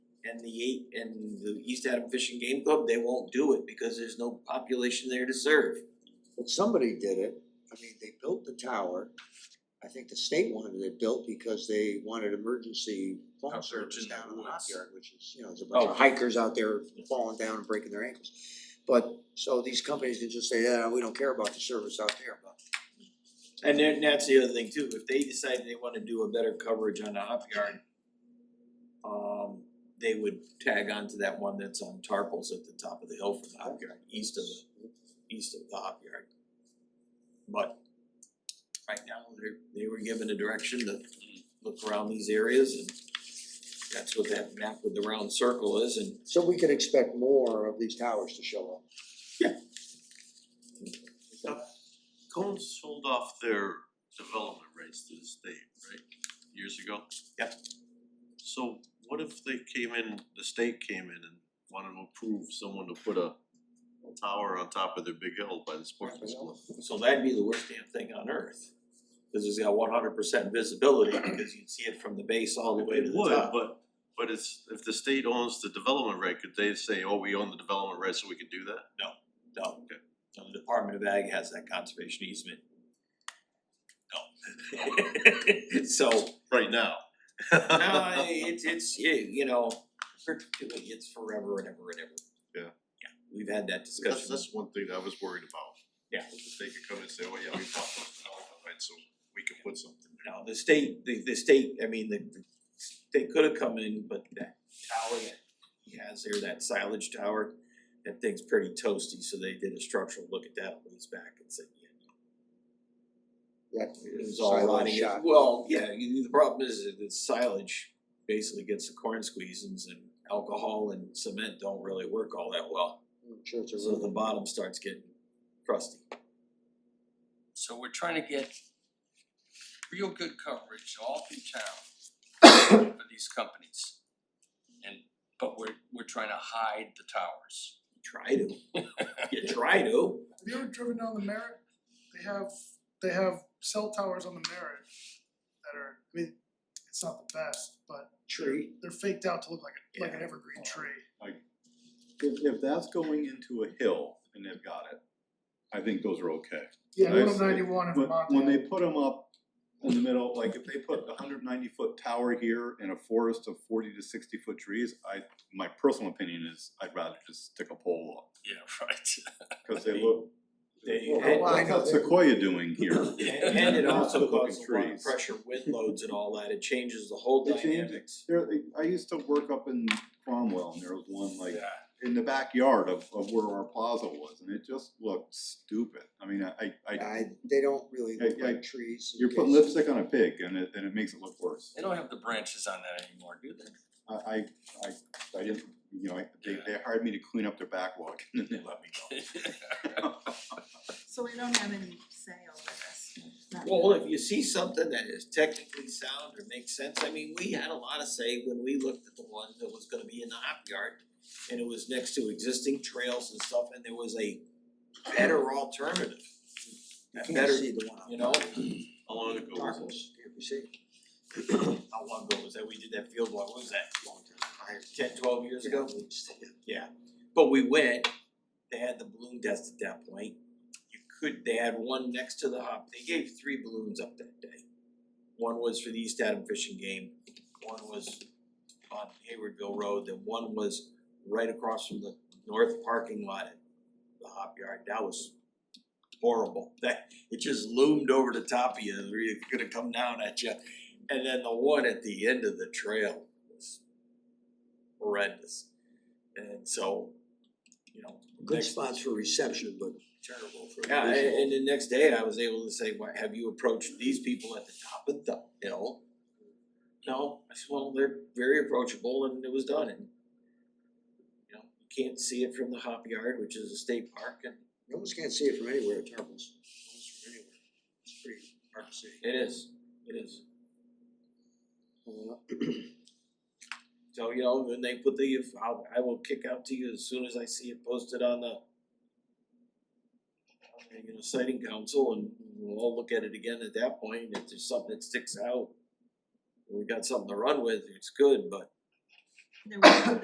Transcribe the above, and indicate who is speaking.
Speaker 1: and the eight and the East Adam Fishing Game Club, they won't do it because there's no population there to serve.
Speaker 2: But somebody did it, I mean, they built the tower, I think the state wanted it built because they wanted emergency phone
Speaker 3: Out there
Speaker 2: service
Speaker 3: in the
Speaker 2: down in the
Speaker 3: woods.
Speaker 2: hop yard, which is, you know, there's a bunch
Speaker 1: Oh.
Speaker 2: of hikers out there falling down and breaking their ankles. But, so these companies can just say, yeah, we don't care about the service out there, but
Speaker 1: And then that's the other thing too, if they decide they wanna do a better coverage on the hop yard. Um, they would tag onto that one that's on tarpals at the top of the hill for the hop yard, east of the, east of the hop yard. But right now, they they were given a direction to look around these areas and that's what that map with the round circle is and
Speaker 2: So we could expect more of these towers to show up.
Speaker 3: Cohen sold off their development rights to the state, right, years ago?
Speaker 1: Yep.
Speaker 3: So what if they came in, the state came in and wanted to approve someone to put a tower on top of their big hill by the sportsman's club?
Speaker 1: So that'd be the worst damn thing on earth, cause it's got one hundred percent visibility, because you'd see it from the base all the way to
Speaker 3: It
Speaker 1: the
Speaker 3: would,
Speaker 1: top.
Speaker 3: but but it's, if the state owns the development right, could they say, oh, we own the development right, so we can do that?
Speaker 1: No, no, the Department of Ag has that conservation easement. No. So,
Speaker 3: Right now.
Speaker 1: no, I- it's it's, yeah, you know, perpetuity, it's forever and ever and ever.
Speaker 3: Yeah.
Speaker 1: Yeah, we've had that
Speaker 3: That's
Speaker 1: discussion,
Speaker 3: that's one thing I was worried about.
Speaker 1: Yeah.
Speaker 3: If They could come and say, oh, yeah, we bought those development rights, so we can put something there.
Speaker 1: no, the state, the the state, I mean, the the- they could have come in, but that tower that he has there, that silage tower, that thing's pretty toasty, so they did a structural look at that a ways back and said, yeah,
Speaker 2: That
Speaker 1: It was
Speaker 2: is
Speaker 1: all
Speaker 2: all
Speaker 1: rotting,
Speaker 2: shot.
Speaker 1: well, yeah, you- the problem is that the silage basically gets the corn squeezins and alcohol and cement don't really work all that well.
Speaker 2: I'm sure it's a
Speaker 1: So the
Speaker 2: room.
Speaker 1: bottom starts getting crusty.
Speaker 4: So we're trying to get real good coverage all through town for these companies. And but we're we're trying to hide the towers.
Speaker 1: You Try to, you try to,
Speaker 5: Have you ever driven down the Merritt? They have, they have cell towers on the Merritt that are, I mean, it's not the best, but
Speaker 2: Tree,
Speaker 5: they're faked out to look like a, like an
Speaker 1: Yeah.
Speaker 5: evergreen tree.
Speaker 6: If if that's going into a hill and they've got it, I think those are okay.
Speaker 5: Yeah,
Speaker 6: I
Speaker 5: one of
Speaker 6: see.
Speaker 5: ninety-one in
Speaker 6: When when they
Speaker 5: Vermont,
Speaker 6: put them up in the middle, like if they put a hundred ninety foot tower here in a forest of forty to sixty foot trees, I, my personal opinion is I'd rather just stick a pole up.
Speaker 4: Yeah, right.
Speaker 6: Cause they look,
Speaker 1: they,
Speaker 2: Well,
Speaker 1: and-
Speaker 2: why
Speaker 6: like
Speaker 2: not?
Speaker 6: how's Sequoia doing here?
Speaker 1: and and it also
Speaker 6: Looking
Speaker 1: causes a lot of
Speaker 6: trees.
Speaker 1: pressure, wind loads and all that, it changes the whole
Speaker 6: It changes.
Speaker 1: dynamics.
Speaker 6: There, I used to work up in Cromwell and there was one like
Speaker 4: Yeah.
Speaker 6: in the backyard of of where our plaza was and it just looked stupid. I mean, I I
Speaker 2: I, they don't really
Speaker 6: Hey,
Speaker 2: look
Speaker 6: hey,
Speaker 2: like trees. in
Speaker 6: You're putting
Speaker 2: case-
Speaker 6: lipstick on a pig and it and it makes it look worse.
Speaker 4: They don't have the branches on that anymore, do they?
Speaker 6: I I I I didn't, you know, I they they hired me to clean up their backlog and then they let me go.
Speaker 7: So we don't have any say over this, not
Speaker 1: Well,
Speaker 7: really.
Speaker 1: if you see something that is technically sound or makes sense, I mean, we had a lot of say when we looked at the one that was gonna be in the hop yard. And it was next to existing trails and stuff, and there was a better alternative.
Speaker 2: You
Speaker 1: That
Speaker 2: can't
Speaker 1: better,
Speaker 2: see the one.
Speaker 1: you know,
Speaker 3: How long ago was it?
Speaker 2: Darkles, can't we see?
Speaker 1: how long ago was that, we did that field walk, what was that, ten, twelve years ago? Yeah, but we went, they had the balloon test at that point. You could, they had one next to the hop, they gave three balloons up that day. One was for the East Adam Fishing Game, one was on Haywardville Road, then one was right across from the north parking lot at the hop yard, that was horrible, that, it just loomed over the top of you, it was gonna come down at you. And then the one at the end of the trail was horrendous. And so, you know,
Speaker 2: Good
Speaker 1: next-
Speaker 2: spots for reception, but terrible for
Speaker 1: yeah, a-
Speaker 2: visual.
Speaker 1: and the next day I was able to say, why, have you approached these people at the top of the hill? No, I said, well, they're very approachable and it was done and. You know, you can't see it from the hop yard, which is a state park and
Speaker 2: You almost can't see it from anywhere, at Tarples. Almost from anywhere. It's pretty hard to see.
Speaker 1: it is, it is.
Speaker 2: Uh,
Speaker 1: So, you know, when they put the, I'll, I will kick out to you as soon as I see it posted on the. You know, citing council and we'll all look at it again at that point, if there's something that sticks out. and We got something to run with, it's good, but
Speaker 7: There was,